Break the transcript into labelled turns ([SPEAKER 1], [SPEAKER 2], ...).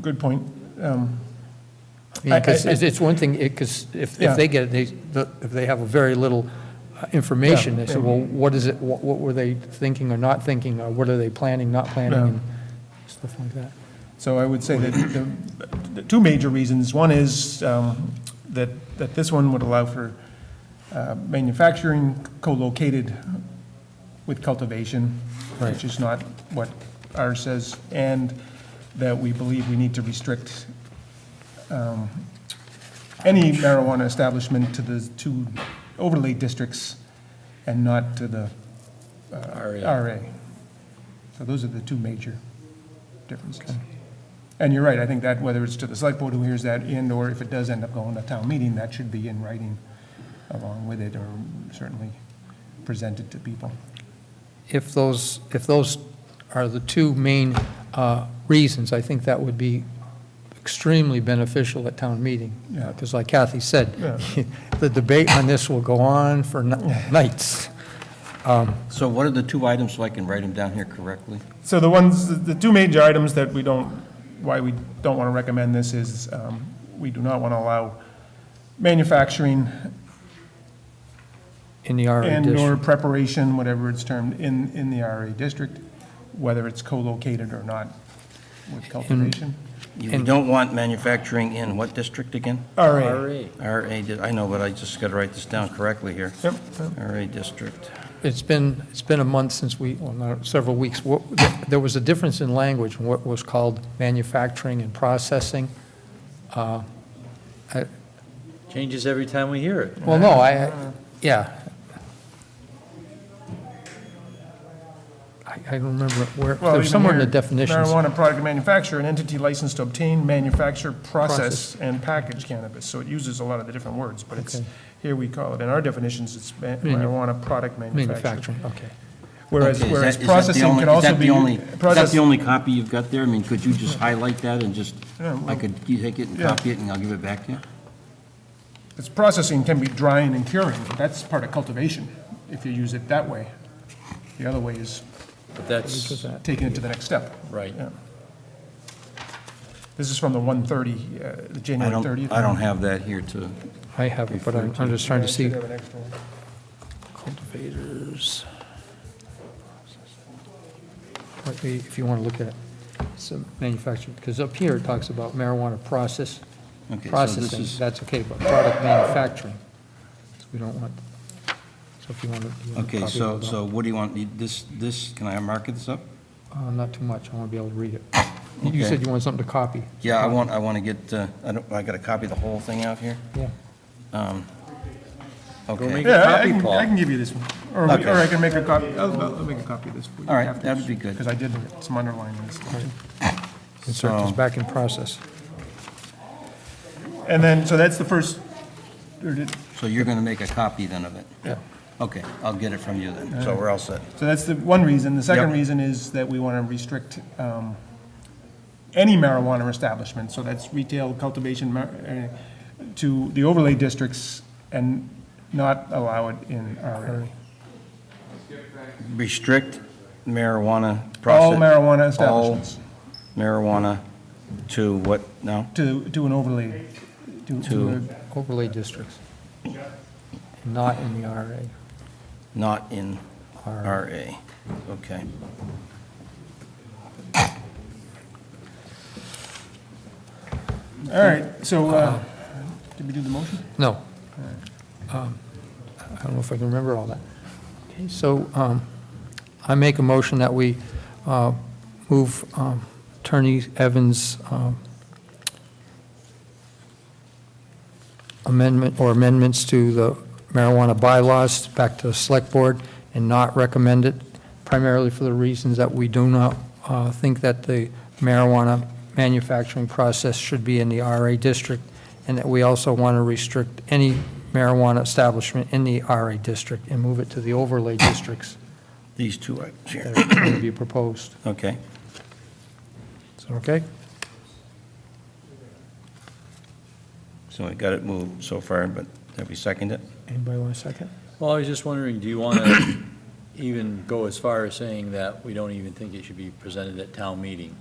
[SPEAKER 1] good point. Um, I- I-
[SPEAKER 2] Because it's it's one thing, because if,
[SPEAKER 1] Yeah.
[SPEAKER 2] if they get, it, they, the- if they have very little uh, information, they say, well, what is it, what what were they thinking or not thinking, or what are they planning, not planning,
[SPEAKER 1] Yeah.
[SPEAKER 2] and stuff like that.
[SPEAKER 1] So I would say that the- the two major reasons, one is um, that, that this one would allow for uh, manufacturing co-located with cultivation,
[SPEAKER 2] Right.
[SPEAKER 1] which is not what ours says, and that we believe we need to restrict um, any marijuana establishment to the two overlay districts and not to the uh, RA. So those are the two major differences. And you're right, I think that whether it's to the select board who hears that in, or if it does end up going to town meeting, that should be in writing along with it, or certainly presented to people.
[SPEAKER 2] If those, if those are the two main uh, reasons, I think that would be extremely beneficial at town meeting.
[SPEAKER 1] Yeah.
[SPEAKER 2] Because like Kathy said,
[SPEAKER 1] Yeah.
[SPEAKER 2] the debate on this will go on for ni- nights.
[SPEAKER 3] So what are the two items, so I can write them down here correctly?
[SPEAKER 1] So the ones, the two major items that we don't, why we don't want to recommend this is, um, we do not want to allow manufacturing
[SPEAKER 2] In the RA
[SPEAKER 1] and/or
[SPEAKER 2] district.
[SPEAKER 1] preparation, whatever it's termed, in, in the RA district, whether it's co-located or not with cultivation.
[SPEAKER 3] You
[SPEAKER 2] And-
[SPEAKER 3] don't want manufacturing in what district again?
[SPEAKER 1] RA.
[SPEAKER 3] RA, di- I know, but I just got to write this down correctly here.
[SPEAKER 1] Yep.
[SPEAKER 3] RA district.
[SPEAKER 2] It's been, it's been a month since we, well, not several weeks. What- There was a difference in language in what was called manufacturing and processing.
[SPEAKER 4] Changes every time we hear it.
[SPEAKER 2] Well, no, I, yeah. I, I don't remember where,
[SPEAKER 1] Well,
[SPEAKER 2] there's
[SPEAKER 1] even
[SPEAKER 2] somewhere in the
[SPEAKER 1] here,
[SPEAKER 2] definitions.
[SPEAKER 1] Marijuana product manufacturer, an entity licensed to obtain, manufacture, process,
[SPEAKER 2] Process.
[SPEAKER 1] and package cannabis. So it uses a lot of the different words, but it's,
[SPEAKER 2] Okay.
[SPEAKER 1] here we call it, in our definitions, it's ma-
[SPEAKER 2] Manu-
[SPEAKER 1] marijuana product manufacturer.
[SPEAKER 2] Manufacturing, okay.
[SPEAKER 1] Whereas,
[SPEAKER 3] Okay, is
[SPEAKER 1] whereas
[SPEAKER 3] that- is that the
[SPEAKER 1] processing
[SPEAKER 3] only-
[SPEAKER 1] can
[SPEAKER 3] is
[SPEAKER 1] also
[SPEAKER 3] that the
[SPEAKER 1] be.
[SPEAKER 3] only- Is that
[SPEAKER 1] process-
[SPEAKER 3] the only copy you've got there? I mean, could you just highlight that and just,
[SPEAKER 1] Yeah, well-
[SPEAKER 3] I could, you take it and
[SPEAKER 1] Yeah.
[SPEAKER 3] copy it, and I'll give it back to you?
[SPEAKER 1] It's processing can be drying and curing. That's part of cultivation, if you use it that way. The other way is
[SPEAKER 4] But that's,
[SPEAKER 1] taking it to the next step.
[SPEAKER 4] Right.
[SPEAKER 1] Yeah. This is from the 130, uh, the
[SPEAKER 3] I
[SPEAKER 1] January 30th.
[SPEAKER 3] don't, I don't have that here to,
[SPEAKER 2] I have it, but I'm, I'm just trying
[SPEAKER 1] I
[SPEAKER 2] to
[SPEAKER 1] should
[SPEAKER 2] see
[SPEAKER 1] have an extra one.
[SPEAKER 2] cultivators. Let me- If you want to look at it, some manufacturing, because up here it talks about marijuana process,
[SPEAKER 3] Okay, so this
[SPEAKER 2] processing,
[SPEAKER 3] is-
[SPEAKER 2] that's okay, but product manufacturing, so we don't want, so if you want to. you want a
[SPEAKER 3] okay,
[SPEAKER 2] copy
[SPEAKER 3] so,
[SPEAKER 2] of that?
[SPEAKER 3] so what do you want, You- this, this, can I mark this up?
[SPEAKER 2] Uh, Not too much, I want to be able to read it. You
[SPEAKER 3] Okay.
[SPEAKER 2] said you wanted something to copy.
[SPEAKER 3] Yeah, I want, I want to get, uh, I don't, I got to copy the whole thing out here?
[SPEAKER 2] Yeah.
[SPEAKER 3] Okay,
[SPEAKER 4] make-
[SPEAKER 1] Yeah, I
[SPEAKER 4] Copy,
[SPEAKER 1] can,
[SPEAKER 4] Paul.
[SPEAKER 1] I can give you this one, or, we-
[SPEAKER 3] Okay.
[SPEAKER 1] or I can make a copy, I'll, I'll make a copy of this for you.
[SPEAKER 3] All right, that'd be good.
[SPEAKER 1] Because I did some underlining and stuff. too.
[SPEAKER 2] Insert this
[SPEAKER 3] So-
[SPEAKER 2] back in process.
[SPEAKER 1] And then, so that's the first, or did-
[SPEAKER 3] so you're going to make a copy then of it?
[SPEAKER 2] Yeah.
[SPEAKER 3] Okay, I'll get it from you then, so we're all set.
[SPEAKER 1] so that's the one reason. The second
[SPEAKER 3] Yep.
[SPEAKER 1] reason is that we want to restrict um, any marijuana establishment, so that's retail cultivation, mar- uh, to the overlay districts and not allow it in our,
[SPEAKER 3] Restrict marijuana process.
[SPEAKER 1] all marijuana establishments
[SPEAKER 3] All marijuana to what now?
[SPEAKER 1] to, to an overlay, to,
[SPEAKER 3] To-
[SPEAKER 1] to a-
[SPEAKER 2] Overlay districts, not in the RA.
[SPEAKER 3] Not in
[SPEAKER 2] R.
[SPEAKER 3] RA. Okay.
[SPEAKER 1] All right, so,
[SPEAKER 3] Uh-huh.
[SPEAKER 1] uh, did we do the motion?
[SPEAKER 2] No. Um, I don't know if I can remember all that. Okay, so um, I make a motion that we uh, move um, Attorney Evans' um, amendment, or amendments to the marijuana bylaws back to the Select Board and not recommend it, primarily for the reasons that we do not uh, think that the marijuana manufacturing process should be in the RA district, and that we also want to restrict any marijuana establishment in the RA district and move it to the overlay districts
[SPEAKER 3] These two items here.
[SPEAKER 2] that are going to be proposed.
[SPEAKER 3] Okay.
[SPEAKER 2] Is that okay?
[SPEAKER 3] So we got it moved so far, but have we seconded it?
[SPEAKER 2] Anybody want a second?
[SPEAKER 4] well, I was just wondering, do you want to even go as far as saying that we don't even think it should be presented at town meeting?